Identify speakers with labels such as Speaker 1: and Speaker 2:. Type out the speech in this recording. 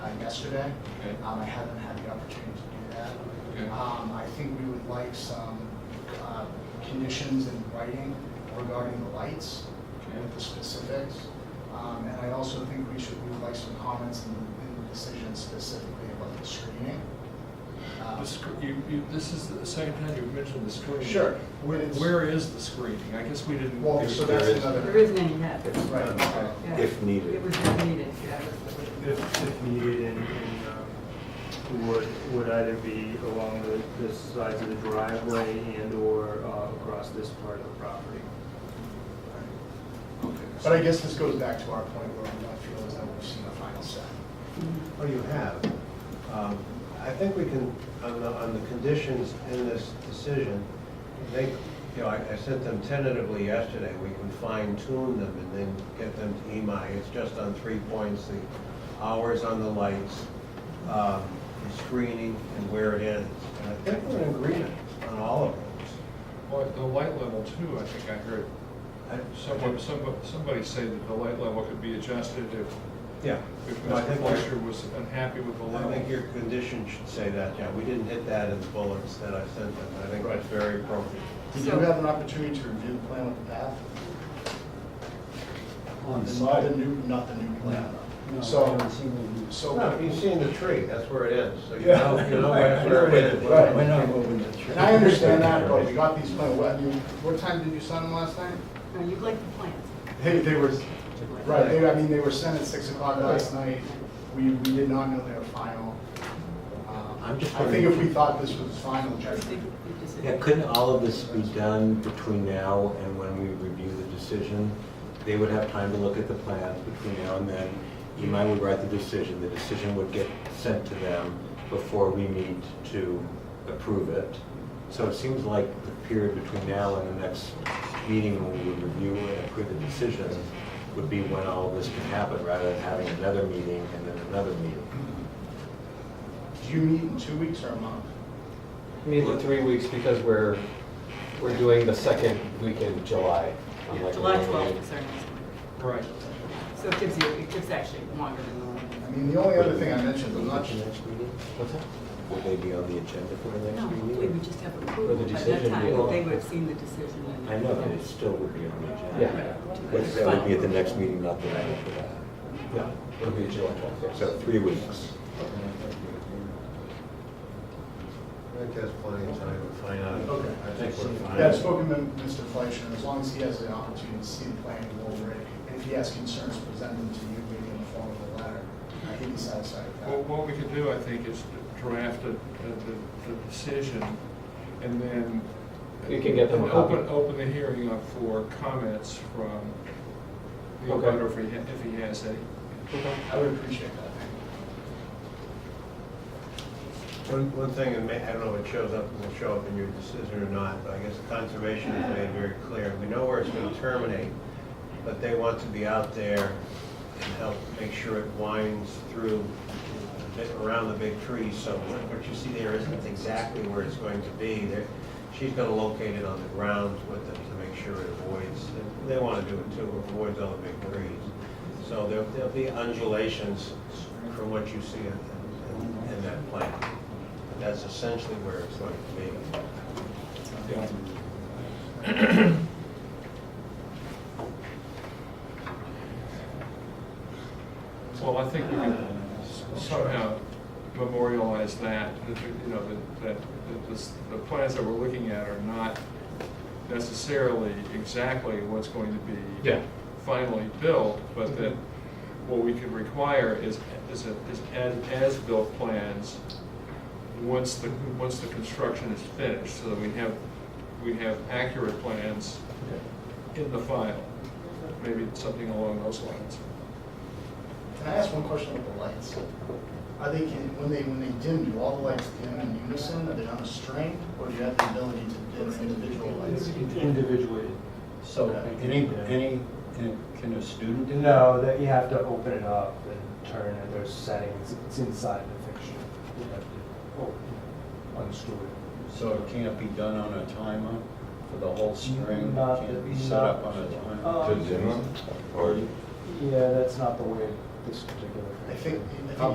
Speaker 1: uh, yesterday.
Speaker 2: Okay.
Speaker 1: Um, I haven't had the opportunity to do that.
Speaker 2: Okay.
Speaker 1: Um, I think we would like some, uh, conditions in writing regarding the lights with the specifics. Um, and I also think we should, we would like some comments in, in the decision specifically about the screening. Um,
Speaker 2: The sc- You, you, this is the second time you've mentioned the screening.
Speaker 1: Sure.
Speaker 2: Where,
Speaker 1: It's-
Speaker 2: where is the screening? I guess we didn't.
Speaker 1: Well,
Speaker 2: do-
Speaker 1: so
Speaker 3: there
Speaker 1: that's
Speaker 3: is-
Speaker 1: another.
Speaker 4: There isn't any yet.
Speaker 3: If-
Speaker 1: Right.
Speaker 3: uh,
Speaker 4: Yeah.
Speaker 3: If
Speaker 4: It
Speaker 3: needed.
Speaker 4: was not needed.
Speaker 5: If, if needed, and, and um, would, would either be along the, the sides of the driveway and/or uh, across this part of the property.
Speaker 1: But I guess this goes back to our point where we don't feel as though we've seen the final set.
Speaker 3: Oh, you have. Um, I think we can, on the, on the conditions in this decision, they, you know, I I sent them tentatively yesterday. We can fine tune them and then get them to EMI. It's just on three points, the hours on the lights, um, the screening and where it ends. And I think we're in agreement on all of those.
Speaker 2: Well, the light level too, I think I heard
Speaker 3: I-
Speaker 2: someone, somebody, somebody say that the light level could be adjusted if,
Speaker 3: Yeah.
Speaker 2: if
Speaker 3: No, I
Speaker 2: Mr.
Speaker 3: think we're-
Speaker 2: Fleischer was unhappy with the
Speaker 3: I think
Speaker 2: level.
Speaker 3: your condition should say that, yeah, we didn't hit that in the bullets that I sent them, I think that's very appropriate.
Speaker 1: Did you
Speaker 4: So-
Speaker 1: have an opportunity to review the plan with the path?
Speaker 6: On
Speaker 1: Not
Speaker 6: the
Speaker 1: the
Speaker 6: side?
Speaker 1: new, not the new plan.
Speaker 6: No, I
Speaker 1: So,
Speaker 6: haven't seen what you-
Speaker 1: so.
Speaker 3: No, you've seen the tree, that's where it ends, so you
Speaker 1: Yeah.
Speaker 3: know, you know that's where it ends.
Speaker 1: Right.
Speaker 6: We're not moving the tree.
Speaker 1: And I understand that, but we got these plans, what, I mean, what time did you sign them last night?
Speaker 4: No, you like the plans.
Speaker 1: They, they were, right, they, I mean, they were sent at six o'clock last night. We, we did not know they were final. Um,
Speaker 7: I'm just
Speaker 1: I think if
Speaker 7: wondering-
Speaker 1: we thought this was final, judgment.
Speaker 7: Yeah, couldn't all of this be done between now and when we review the decision? They would have time to look at the plans between now and then. Imai would write the decision, the decision would get sent to them before we meet to approve it. So it seems like the period between now and the next meeting when we review and approve the decision would be when all of this can happen, rather than having another meeting and then another meeting.
Speaker 1: do you meet in two weeks or a month?
Speaker 8: Meet in three weeks because we're, we're doing the second week in July. unlike
Speaker 4: July
Speaker 8: the one we-
Speaker 4: 12th is our next one.
Speaker 2: Right.
Speaker 4: So it gives you, it gives actually longer than the
Speaker 1: I
Speaker 4: one.
Speaker 1: mean, the only other thing I mentioned, I'm not,
Speaker 7: Would it be the next meeting?
Speaker 8: What's that?
Speaker 7: Would they be on the agenda for the next
Speaker 4: No,
Speaker 7: meeting?
Speaker 4: we would just have approval
Speaker 8: But the
Speaker 4: by that
Speaker 8: decision
Speaker 4: time.
Speaker 8: will-
Speaker 4: They would have seen the decision. and-
Speaker 7: I know, but it still would be on the
Speaker 8: Yeah.
Speaker 7: agenda.
Speaker 4: "Oh,
Speaker 7: But that would be at the next meeting, not the night after that.
Speaker 8: No, it'll be July twelfth.
Speaker 7: So three weeks.
Speaker 3: I think that's plenty of time to find out.
Speaker 1: Okay.
Speaker 3: I think we're fine.
Speaker 1: yeah, I've spoken to Mr. Fleischer, and as long as he has the opportunity to see the plan and go over it, and if he has concerns, present them to you, maybe in the form of a letter. I think he's satisfied with that.
Speaker 2: Well, what we could do, I think, is draft a, a- the, the decision and then.
Speaker 8: You can get them a
Speaker 2: and
Speaker 8: copy.
Speaker 2: Open, open the hearing up for comments from the
Speaker 8: Okay.
Speaker 2: abutter if he, ha- if he has any.
Speaker 1: I would appreciate that.
Speaker 3: One, one thing, and may- I don't know if it shows up, will show up in your decision or not, but I guess conservation has made very clear, we know where it's gonna terminate, but they want to be out there and help make sure it winds through, the bit- around the big trees somewhere. What you see there isn't exactly where it's going to be, there, she's gonna locate it on the ground with them to make sure it avoids, they wanna do it too, avoids all the big trees. So there'll, there'll be undulations from what you see in- in, in that plan. But That's essentially where it's going to be.
Speaker 2: Yeah. Well, I think we can somehow memorialize that, that, you know, that, that that the, s- the plans that we're looking at are not necessarily exactly what's going to be
Speaker 8: Yeah.
Speaker 2: finally built, but that what we can require is, is, a- is as- as-built plans once the, once the construction is finished, so that we have, we have accurate plans in the file, maybe something along those lines.
Speaker 1: Can I ask one question about the lights? Are they, can- when they, when they dim, do all the lights dim in unison, are they on a string, or do you have the ability to dim individual lights?
Speaker 5: Individually.
Speaker 6: So any, any, can- can a student do that?
Speaker 5: No, that you have to open it up and turn it, there's settings, it's inside the fixture. You have to open, unscrew it.
Speaker 6: So it can't be done on a timer for the whole string?
Speaker 5: Not
Speaker 6: Can't be
Speaker 5: that-
Speaker 6: set up
Speaker 5: not-
Speaker 6: on a
Speaker 5: Uh,
Speaker 6: timer?
Speaker 5: To Zimmer?
Speaker 7: Or
Speaker 5: Yeah, that's not the way this particular.
Speaker 1: I think, I think